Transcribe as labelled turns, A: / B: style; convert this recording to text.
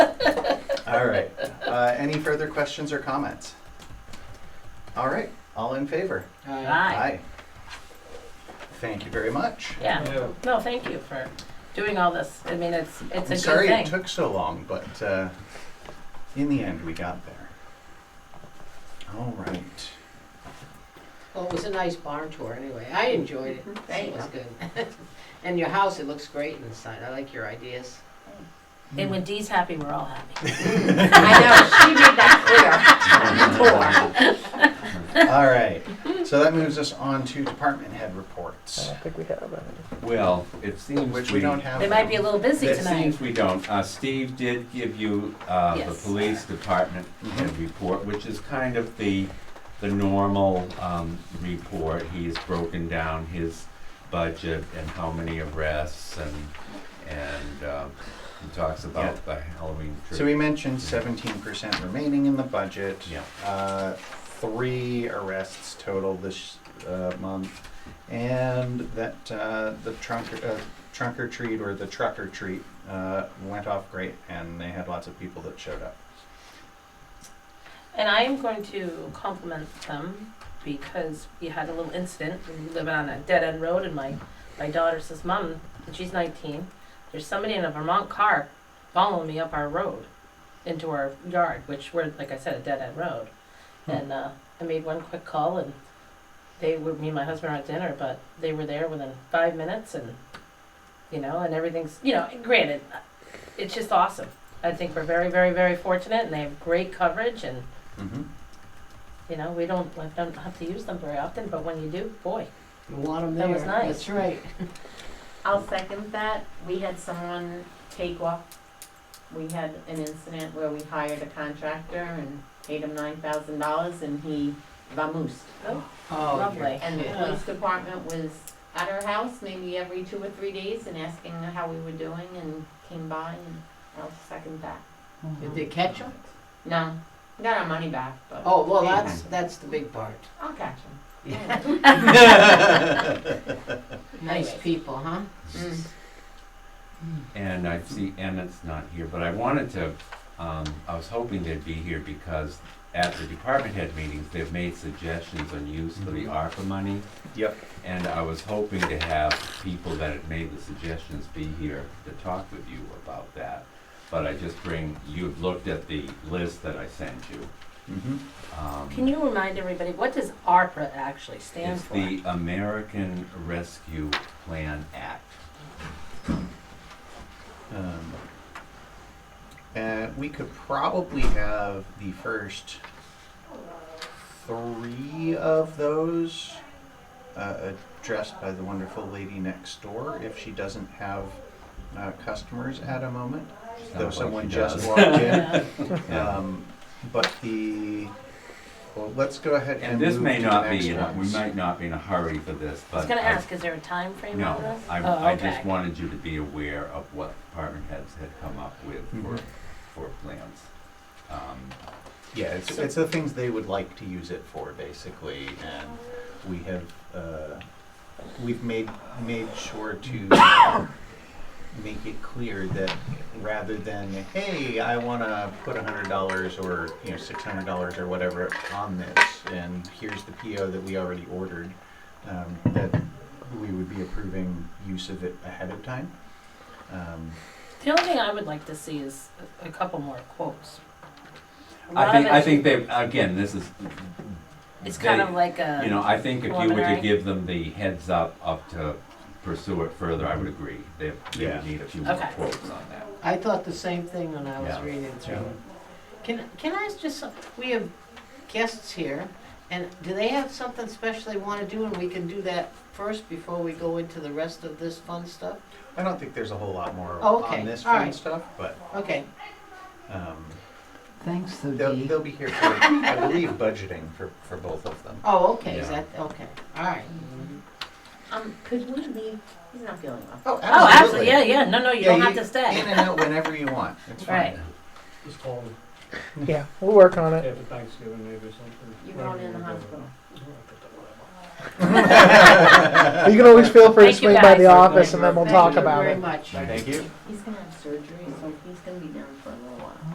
A: All right. Uh, any further questions or comments? All right. All in favor?
B: Uh,
C: Aye.
A: Thank you very much.
C: Yeah. No, thank you for doing all this. I mean, it's, it's a
A: I'm
C: good
A: sorry it
C: thing.
A: took so long, but uh, in the end, we got there. All right.
B: Well, oh, it was a nice barn tour anyway. I enjoyed it.
C: There you
B: It was
C: go.
B: good. And your house, it looks great inside. I like your ideas.
C: And when Dee's happy, we're all happy.
B: I know, she made that clear. Tour.
A: All right. So that moves us on to department head reports,
D: think we have any.
E: Well, it seems.
A: which we don't have.
C: They might be a little busy
E: It
C: tonight.
E: seems we don't. Uh, Steve did give you, uh, the
C: Yes.
E: police department
A: Mhm.
E: report, which is kind of the, the normal, um, report. He has broken down his budget and how many arrests and, and, um, he talks about the Halloween trip.
A: So we mentioned 17% remaining in the budget.
E: Yeah.
A: Uh, three arrests total this uh, month, and that uh, the trunk uh, trunk or treat or the truck or treat uh, went off great, and they had lots of people that showed up.
C: And I am going to compliment them because we had a little incident. We were living on a dead end road, and my, my daughter says, Mom, and she's 19, there's somebody in a Vermont car following me up our road into our yard, which we're, like I said, a dead end road. And uh, I made one quick call, and they were, me and my husband were at dinner, but they were there within five minutes, and, you know, and everything's, you know, granted, it's just awesome. I think we're very, very, very fortunate, and they have great coverage, and
A: hmm
C: you know, we don't, I don't have to use them very often, but when you do, boy.
B: You want 'em
C: That was
B: there.
C: nice.
B: That's right.
F: I'll second that. We had someone take off. We had an incident where we hired a contractor and paid him nine thousand dollars and he vamoosed.
C: Oh,
B: Oh,
C: lovely.
F: And the
B: Yeah.
F: police department was at our house maybe every two or three days and asking how we were doing and came by and I'll second that.
B: Did they catch him?
F: No, got our money back, but
B: Oh, well, that's, that's the big part.
F: I'll catch him.
B: Yeah. Nice
F: Anyways.
B: people, huh?
F: Mm.
E: And I see Emmett's not here, but I wanted to, um, I was hoping they'd be here because at the department head meetings, they've made suggestions on use for the
A: Mm-hmm.
E: ARPA money.
A: Yep.
E: And I was hoping to have people that had made the suggestions be here to talk with you about that. But I just bring, you've looked at the list that I sent you.
A: hmm
E: Um,
C: Can you remind everybody, what does ARPA actually stand
E: It's
C: for?
E: the American Rescue Plan Act.
A: Um, uh, we could probably have the first three of those uh, addressed by the wonderful lady next door if she doesn't have uh, customers at a moment,
E: Sounds
A: though
E: like she
A: someone just
E: does.
A: walked in.
C: Yeah.
E: Yeah.
A: Um, but the well, let's go ahead and,
E: And this
A: move
E: may
A: to the
E: not be,
A: next
E: in a- we
A: ones.
E: might not be in a hurry for this,
C: I
E: but.
C: was gonna
E: I-
C: ask, is there a time frame on
E: No,
C: this?
E: I,
C: Oh,
E: I just
C: okay.
E: wanted you to be aware of what department heads had come up with for,
A: Mhm.
C: Mm-hmm.
E: for plans. Um,
A: Yeah, it's,
C: So-
A: it's the things they would like to use it for, basically, and we have, uh, we've made, made sure to make it clear that rather than, hey, I wanna put a hundred dollars or, you know, six hundred dollars or whatever on this, and here's the PO that we already ordered, um, that we would be approving use of it ahead of time. Um,
C: The only thing I would like to see is a a couple more quotes. A lot
E: I think,
C: of
E: I
C: it-
E: think they, again, this is.
C: It's kind
E: they-
C: of like
E: You know,
C: a,
E: I think if you were to
C: preliminary.
E: give them the heads up, up to pursue it further, I would agree. They, they
A: Yeah.
E: would need a few more
C: Okay.
E: quotes on that.
B: I thought the same thing when I was
E: Yeah.
B: reading through. Can, can I ask just, some- we have guests here, and do they have something special they want to do, and we can do that first before we go into the rest of this fun stuff?
A: I don't think there's a whole lot more
B: Oh, okay.
A: on this
B: All
A: fun
B: right.
A: stuff, but,
B: Okay,
A: um,
G: Thanks, though,
A: They'll,
G: Dee.
A: they'll be here for, I believe, budgeting for, for both of them.
B: oh, okay, is
E: Yeah.
B: that, okay, all right.
F: Um, could we leave? He's not feeling well.
A: Oh,
C: oh, absolutely, yeah, yeah, no, no, you don't have to
A: In
C: stay.
A: and out whenever you want. It's fine.
C: Right.
H: Just call them
D: Yeah, we'll work on it.
H: after Thanksgiving maybe or something.
F: You going in the hospital?
D: You can always feel free to
C: Thank you,
D: swing by
C: guys.
D: the office and then we'll
B: Thank
D: talk
B: you
D: about
B: Very
D: it.
B: much.
A: Thank you.
F: He's gonna have surgery, so he's gonna be down